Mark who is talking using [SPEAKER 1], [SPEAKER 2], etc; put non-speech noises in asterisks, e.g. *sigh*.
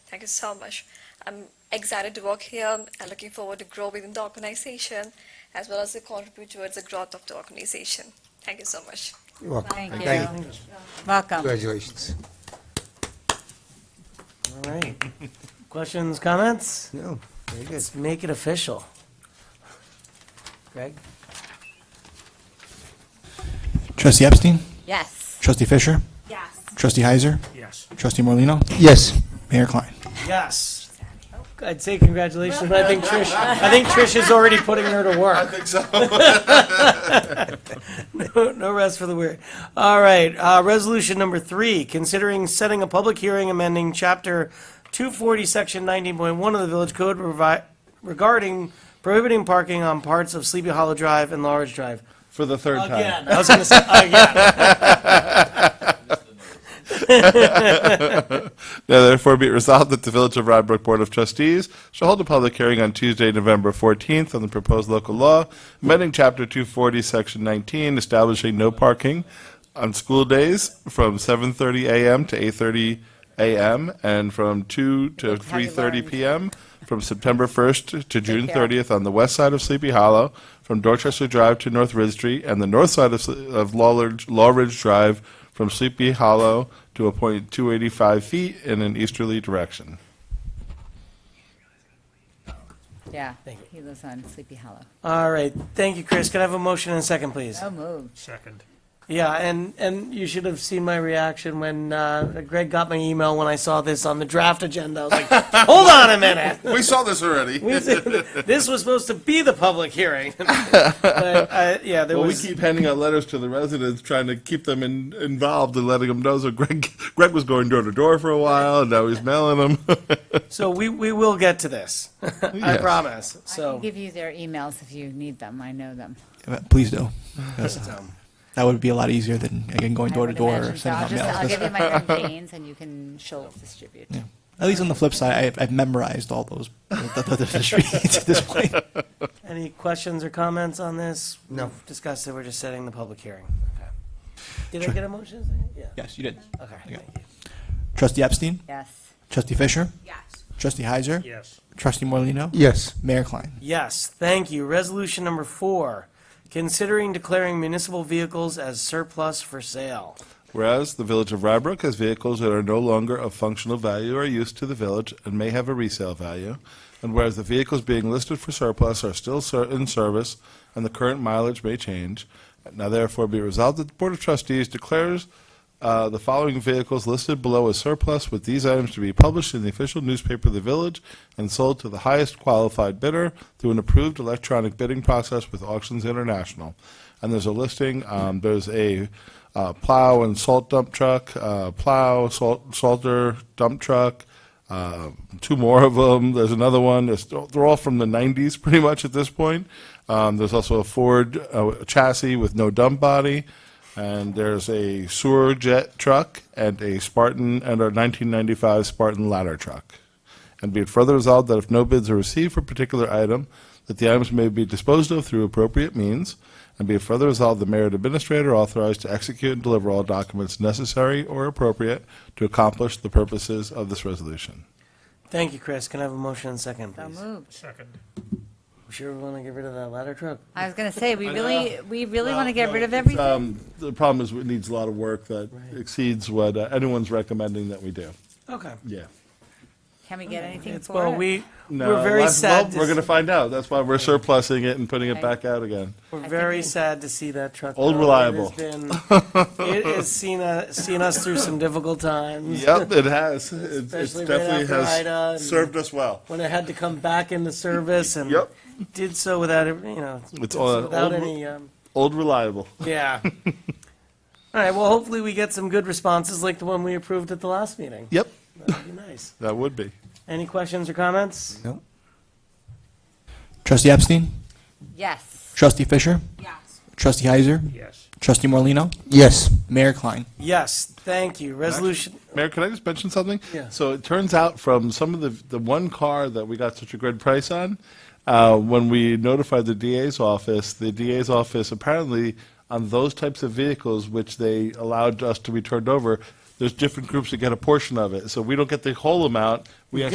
[SPEAKER 1] Thank you so much. I'm excited to work here and looking forward to grow within the organization as well as to contribute towards the growth of the organization. Thank you so much.
[SPEAKER 2] You're welcome.
[SPEAKER 3] Thank
[SPEAKER 2] Thank
[SPEAKER 3] you. Welcome.
[SPEAKER 2] Congratulations.
[SPEAKER 4] All right. Questions, comments?
[SPEAKER 2] No, very good.
[SPEAKER 4] Let's make it official. Greg?
[SPEAKER 5] Trustee Epstein?
[SPEAKER 3] Yes.
[SPEAKER 5] Trustee Fisher?
[SPEAKER 3] Yes.
[SPEAKER 5] Trustee Heiser?
[SPEAKER 4] Yes.
[SPEAKER 5] Trustee Morlino,
[SPEAKER 2] Yes.
[SPEAKER 5] Mayor Klein?
[SPEAKER 4] Yes. I'd say congratulations, but I think Trish, I think Trish is already putting her to work. I think so. *laughs* No rest for the weary. All right, uh, resolution number three, considering setting a public hearing amending chapter two forty, section nineteen point one of the village code revi- regarding prohibiting parking on parts of Sleepy Hollow Drive and Large Drive.
[SPEAKER 6] For the third time.
[SPEAKER 4] Again, I was gonna say, again.
[SPEAKER 6] Now therefore be it resolved that the Village of Rod Brook Board of Trustees shall hold a public hearing on Tuesday, November 14th on the proposed local law amending Chapter 240, Section 19, establishing no parking on school days from 7:30 a.m. to 8:30 a.m. and from 2 to
[SPEAKER 3] Have you
[SPEAKER 6] 3:30
[SPEAKER 3] learned?
[SPEAKER 6] p.m. from September 1st to June
[SPEAKER 3] care.
[SPEAKER 6] 30th on the west side of Sleepy Hollow, from Dorchester Drive to North Ridge Street, and the north side of, Sle- of Lawridge, Lawridge Drive from Sleepy Hollow to a point 285 feet in an easterly direction.
[SPEAKER 3] Yeah, he lives on Sleepy Hollow.
[SPEAKER 4] *laughs*
[SPEAKER 3] Oh,
[SPEAKER 4] All right, thank you, Chris. Can I have a motion and a second, please?
[SPEAKER 3] So moved.
[SPEAKER 4] Yeah, and, and you should have seen my reaction when uh, Greg got my email when I saw this on the draft agenda. I was like, hold on a minute. *laughs*
[SPEAKER 6] We saw this already.
[SPEAKER 4] We said This was supposed to be the public hearing. *laughs* But, uh, yeah, there
[SPEAKER 6] Well, we
[SPEAKER 4] was,
[SPEAKER 6] keep handing out letters to the residents, trying to keep them in, involved and letting them know. So Greg, *laughs* Greg was going door to door for a while, and now he's mailing them. *laughs*
[SPEAKER 4] so we, we will get to this. I
[SPEAKER 6] Yes.
[SPEAKER 4] promise.
[SPEAKER 3] I can
[SPEAKER 4] So,
[SPEAKER 3] give you their emails if you need them. I know them.
[SPEAKER 5] Uh, Please do. 'cause
[SPEAKER 4] so,
[SPEAKER 5] That would be a lot easier than, again, going
[SPEAKER 3] I
[SPEAKER 5] door to
[SPEAKER 3] would
[SPEAKER 5] door
[SPEAKER 3] imagine
[SPEAKER 5] or
[SPEAKER 3] so.
[SPEAKER 5] sending
[SPEAKER 3] I'll
[SPEAKER 5] out
[SPEAKER 3] just- I'll
[SPEAKER 5] mail.
[SPEAKER 3] give you my
[SPEAKER 5] *laughs*
[SPEAKER 3] campaigns and you can show distribute.
[SPEAKER 5] Yeah. At least on the flip side, I've, I've memorized all those, the, the, the
[SPEAKER 3] *laughs*
[SPEAKER 5] streets at this point.
[SPEAKER 4] any questions or comments on this?
[SPEAKER 2] No.
[SPEAKER 4] We've Discussed that we're just setting the public hearing. Okay. Did I
[SPEAKER 5] Sure.
[SPEAKER 4] get a motion? Yeah.
[SPEAKER 5] Yes, you did.
[SPEAKER 4] Okay,
[SPEAKER 5] Yeah.
[SPEAKER 4] thank you.
[SPEAKER 5] Trustee Epstein?
[SPEAKER 3] Yes.
[SPEAKER 5] Trustee Fisher? Yes. Trustee Heiser?
[SPEAKER 7] Yes.
[SPEAKER 5] Trustee Morlino,
[SPEAKER 2] Yes.
[SPEAKER 5] Mayor Klein?
[SPEAKER 4] Yes, thank you. Resolution number four, considering declaring municipal vehicles as surplus for sale.
[SPEAKER 6] Whereas the village of Rybrook has vehicles that are no longer of functional value or use to the village and may have a resale value, and whereas the vehicles being listed for surplus are still ser- in service and the current mileage may change, now therefore be resolved that the Board of Trustees declares uh, the following vehicles listed below as surplus, with these items to be published in the official newspaper of the village and sold to the highest qualified bidder through an approved electronic bidding process with Auctions International. And there's a listing, um, there's a uh, plow and salt dump truck, uh, plow, salt, salter, dump truck, uh, two more of them. There's another one. It's, they're all from the 90s, *laughs* pretty much at this point. Um, there's also a Ford uh, chassis with no dump body, and there's a sewer jet truck and a Spartan and a 1995 Spartan ladder truck. And be it further resolved that if no bids are received for a particular item, that the items may be disposed of through appropriate means. And be it further resolved, the mayor and administrator are authorized to execute and deliver all documents necessary or appropriate to accomplish the purposes of this resolution.
[SPEAKER 4] Thank you, Chris. Can I have a motion and second,
[SPEAKER 3] So
[SPEAKER 4] please?
[SPEAKER 3] moved.
[SPEAKER 4] We Sure we want to get rid of that ladder truck?
[SPEAKER 3] I was gonna say, we
[SPEAKER 6] I
[SPEAKER 3] really,
[SPEAKER 6] know.
[SPEAKER 3] we really want to get
[SPEAKER 6] Well, no,
[SPEAKER 3] rid of
[SPEAKER 6] it's,
[SPEAKER 3] everything.
[SPEAKER 6] um, The problem is it needs a lot of work that exceeds what uh, anyone's recommending that we do.
[SPEAKER 4] Okay.
[SPEAKER 6] Yeah.
[SPEAKER 3] Can we get anything
[SPEAKER 4] It's,
[SPEAKER 3] for
[SPEAKER 4] well,
[SPEAKER 3] it?
[SPEAKER 4] we, we're very sad,
[SPEAKER 6] We're going to
[SPEAKER 4] to-
[SPEAKER 6] find out. That's why we're surplusing it and putting it
[SPEAKER 3] Right.
[SPEAKER 6] back out again.
[SPEAKER 4] we're
[SPEAKER 3] think *laughs*
[SPEAKER 4] very
[SPEAKER 3] we-
[SPEAKER 4] sad to see that truck.
[SPEAKER 6] Old
[SPEAKER 4] go.
[SPEAKER 6] reliable.
[SPEAKER 4] It
[SPEAKER 6] *laughs*
[SPEAKER 4] has been, it has seen, uh, seen us through some difficult times.
[SPEAKER 6] Yep, it has. It it's
[SPEAKER 4] Especially right
[SPEAKER 6] definitely
[SPEAKER 4] after Ida and-
[SPEAKER 6] has served us well.
[SPEAKER 4] When it had to come back into service and
[SPEAKER 6] Yep.
[SPEAKER 4] did so without, you know, did
[SPEAKER 6] It's
[SPEAKER 4] so
[SPEAKER 6] all-
[SPEAKER 4] without
[SPEAKER 6] old-
[SPEAKER 4] any, um,
[SPEAKER 6] Old reliable.
[SPEAKER 4] Yeah. *laughs* All right, well, hopefully we get some good responses like the one we approved at the last meeting.
[SPEAKER 6] Yep.
[SPEAKER 4] That'd be nice.
[SPEAKER 6] That would be.
[SPEAKER 4] Any questions or comments?
[SPEAKER 2] No.
[SPEAKER 5] Trustee Epstein?
[SPEAKER 3] Yes.
[SPEAKER 5] Trustee Fisher?
[SPEAKER 3] Yes.
[SPEAKER 5] Trustee Heiser?
[SPEAKER 7] Yes.
[SPEAKER 5] Trustee Morlino,
[SPEAKER 2] Yes.
[SPEAKER 5] Mayor Klein?
[SPEAKER 4] Yes, thank you. Resolution,
[SPEAKER 6] Mayor, can I just mention something?
[SPEAKER 4] Yeah.
[SPEAKER 6] So it turns out from some of the, the one car that we got such a good price on, uh, when we notified the DA's office, the DA's office apparently on those types of vehicles, which they allowed us to be turned over, there's different groups that get a portion of it. So we don't get the whole amount. We